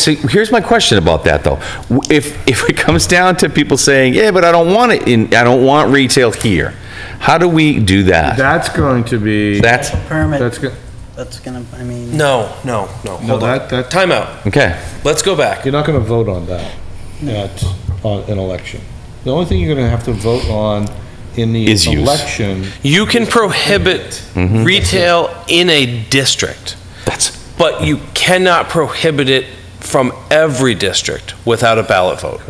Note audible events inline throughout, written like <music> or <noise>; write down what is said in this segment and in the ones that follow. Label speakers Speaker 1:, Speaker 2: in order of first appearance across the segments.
Speaker 1: So here's my question about that, though. W- If, if it comes down to people saying, yeah, but I don't want it in, I don't want retail here, how do we do that?
Speaker 2: That's going to be,
Speaker 1: That's,
Speaker 2: that's,
Speaker 3: Permit,
Speaker 2: go-
Speaker 3: that's gonna, I mean.
Speaker 4: No, no,
Speaker 5: No,
Speaker 4: no. Hold on.
Speaker 5: that, that,
Speaker 4: Time out.
Speaker 1: okay,
Speaker 4: Let's go back.
Speaker 5: you're not gonna vote on that at, on an election. The only thing you're gonna have to vote on in the
Speaker 1: Is use.
Speaker 5: election
Speaker 4: You can prohibit retail in a district,
Speaker 1: Mm-hmm. that's,
Speaker 4: but you cannot prohibit it from every district without a ballot vote.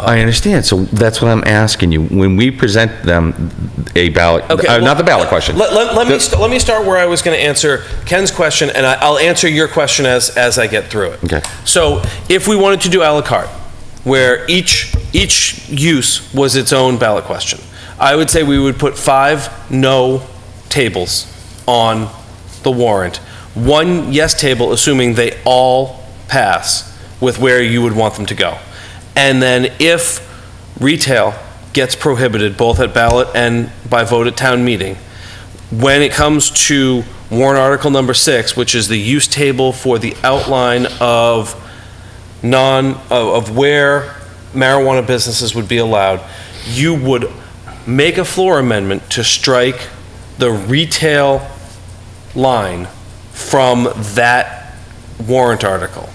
Speaker 1: I understand, so that's what I'm asking you. When we present them a ballot,
Speaker 4: Okay,
Speaker 1: uh,
Speaker 4: well,
Speaker 1: not the ballot question.
Speaker 4: Let, let, let me
Speaker 1: The-
Speaker 4: st- let me start where I was going to answer Ken's question, and I, I'll answer your question as as I get through it.
Speaker 1: Okay.
Speaker 4: So, if we wanted to do à la carte, where each each use was its own ballot question, I would say we would put five no tables on the warrant, one yes table, assuming they all pass with where you would want them to go, and then if retail gets prohibited both at ballot and by vote at town meeting, when it comes to warrant article number six, which is the use table for the outline of non, of- of where marijuana businesses would be allowed, you would make a floor amendment to strike the retail line from that warrant article.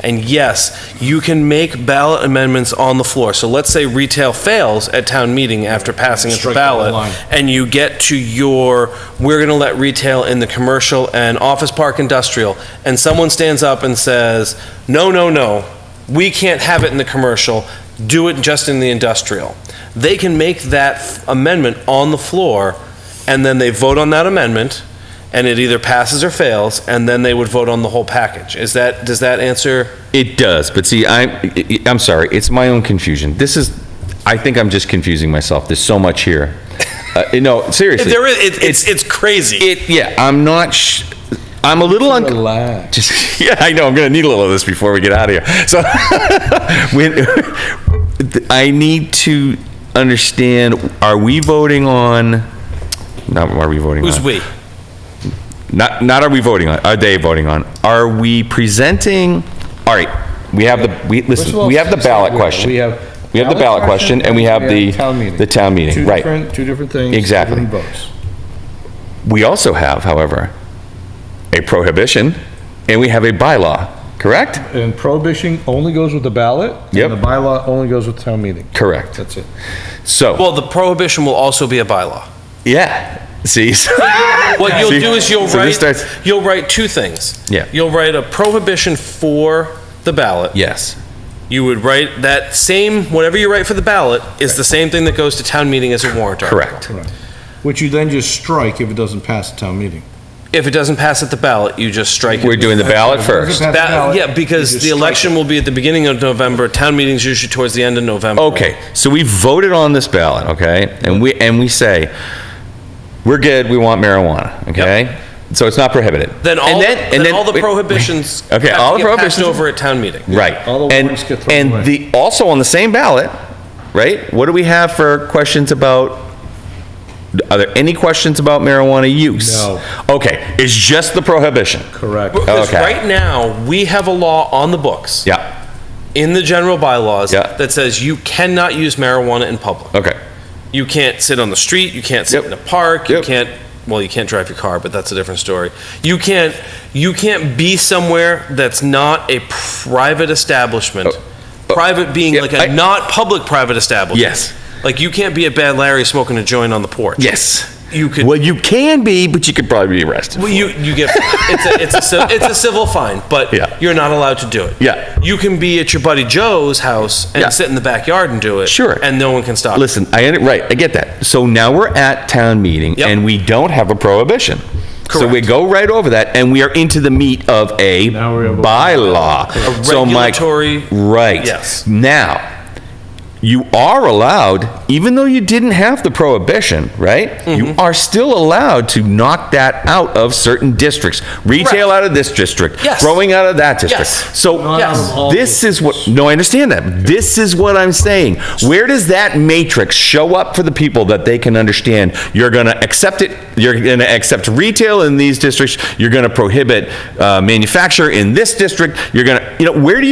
Speaker 4: And yes, you can make ballot amendments on the floor. So let's say retail fails at town meeting after passing its
Speaker 5: Strike the whole
Speaker 4: ballot,
Speaker 5: line.
Speaker 4: and you get to your, we're going to let retail in the commercial and office park industrial, and someone stands up and says, no, no, no, we can't have it in the commercial, do it just in the industrial. They can make that f- amendment on the floor, and then they vote on that amendment, and it either passes or fails, and then they would vote on the whole package. Is that, does that answer?
Speaker 1: It does, but see, I, I- I'm sorry, it's my own confusion. This is, I think I'm just confusing myself, there's so much here. Uh,
Speaker 4: <laughs>
Speaker 1: No, seriously.
Speaker 4: There is, it- it's, it's crazy.
Speaker 1: It, yeah, I'm not, sh- I'm a little unclear.
Speaker 5: relax.
Speaker 1: Just, <laughs> yeah, I know. I'm going to need a little of this before we get out of here. So, <laughs> when, I need to understand: Are we voting on? Not are we voting
Speaker 4: Who's
Speaker 1: on?
Speaker 4: we?
Speaker 1: Not not are we voting on? Are they voting on? Are we presenting? All right, we have the we
Speaker 5: First of
Speaker 1: listen.
Speaker 5: all,
Speaker 1: we have the
Speaker 5: six
Speaker 1: ballot
Speaker 5: that we-
Speaker 1: question.
Speaker 5: We have.
Speaker 1: we have the ballot question, and we have the
Speaker 5: town meeting.
Speaker 1: the town meeting.
Speaker 5: Two
Speaker 1: right.
Speaker 5: different, two different things. two
Speaker 1: Exactly.
Speaker 5: different votes.
Speaker 1: We also have, however, a prohibition, and we have a bylaw. Correct.
Speaker 5: And prohibition only goes with the ballot.
Speaker 1: Yep.
Speaker 5: And the bylaw only goes with town meeting.
Speaker 1: Correct.
Speaker 5: That's it.
Speaker 1: So
Speaker 4: Well, the prohibition will also be a bylaw.
Speaker 1: yeah. See.
Speaker 4: What
Speaker 1: <laughs>
Speaker 4: you'll
Speaker 1: See?
Speaker 4: do is you'll
Speaker 1: So this
Speaker 4: write,
Speaker 1: starts-
Speaker 4: you'll write two things.
Speaker 1: Yeah.
Speaker 4: You'll write a prohibition for the ballot.
Speaker 1: Yes.
Speaker 4: You would write that same, whatever you write for the ballot is the same thing that goes to town meeting as a warrant article.
Speaker 1: Correct.
Speaker 5: Which you then just strike if it doesn't pass the town meeting.
Speaker 4: If it doesn't pass at the ballot, you just strike
Speaker 1: We're
Speaker 4: it.
Speaker 1: doing the ballot
Speaker 5: Doesn't
Speaker 1: first.
Speaker 5: pass the
Speaker 4: That,
Speaker 5: ballot,
Speaker 4: yeah, because
Speaker 5: you just
Speaker 4: the
Speaker 5: strike
Speaker 4: election will be at the beginning of November, town meeting's usually towards the end of November.
Speaker 1: Okay, so we voted on this ballot, okay? And we, and we say, we're good, we want marijuana, okay? So it's not prohibited.
Speaker 4: Then all,
Speaker 1: And and
Speaker 4: then all the
Speaker 1: wait,
Speaker 4: prohibitions have
Speaker 1: <laughs> Okay, all
Speaker 4: to
Speaker 1: the
Speaker 4: get passed
Speaker 1: prohibitions-
Speaker 4: over at town meeting.
Speaker 1: Right.
Speaker 5: All the
Speaker 1: And-
Speaker 5: warrants get thrown away.
Speaker 1: And the, also on the same ballot, right? What do we have for questions about, are there any questions about marijuana use?
Speaker 5: No.
Speaker 1: Okay, it's just the prohibition.
Speaker 5: Correct.
Speaker 4: Because
Speaker 1: Okay.
Speaker 4: right now, we have a law on the books.
Speaker 1: Yeah,
Speaker 4: in the general bylaws
Speaker 1: Yeah.
Speaker 4: that says you cannot use marijuana in public.
Speaker 1: okay,
Speaker 4: You can't sit on the street, you can't sit
Speaker 1: Yep.
Speaker 4: in a park, you
Speaker 1: Yep.
Speaker 4: can't well, you can't drive your car, but that's a different story. You can't you can't be somewhere that's not a private establishment.
Speaker 1: oh.
Speaker 4: private being
Speaker 1: Yeah,
Speaker 4: like
Speaker 1: I-
Speaker 4: a not public private establishment.
Speaker 1: Yes.
Speaker 4: Like you can't be at Bad Larry smoking a joint on the porch.
Speaker 1: yes.
Speaker 4: You could
Speaker 1: Well, you can be, but you could probably be arrested.
Speaker 4: well, you, you get it's a, it's a civ- it's a civil fine, but
Speaker 1: Yeah.
Speaker 4: you're not allowed to do it.
Speaker 1: Yeah.
Speaker 4: you can be at your buddy Joe's house and
Speaker 1: Yeah.
Speaker 4: sit in the backyard and do it.
Speaker 1: Sure.
Speaker 4: and no one can stop. you.
Speaker 1: Listen, I, under- right, I get that. So now we're at town meeting
Speaker 4: Yep.
Speaker 1: and we don't have a prohibition. So we
Speaker 4: Correct.
Speaker 1: go right over that and we are into the meat of a
Speaker 5: Now we're able-
Speaker 1: bylaw.
Speaker 4: A
Speaker 1: So my-
Speaker 4: regulatory-
Speaker 1: Right.
Speaker 4: Yes.
Speaker 1: Now, you are allowed, even though you didn't have the prohibition, right?
Speaker 4: Mm-hmm.
Speaker 1: You are still allowed to knock that out of certain districts. Retail out of this district,
Speaker 4: Yes.
Speaker 1: growing out of that district.
Speaker 4: Yes.
Speaker 1: So
Speaker 4: Not out of
Speaker 5: all
Speaker 1: this is what, no, I understand that. This is what I'm saying. Where does that matrix show up for the people that they can understand? You're going to accept it, you're going to accept retail in these districts, you're going to prohibit uh, manufacture in this district, you're going to, you know, where do you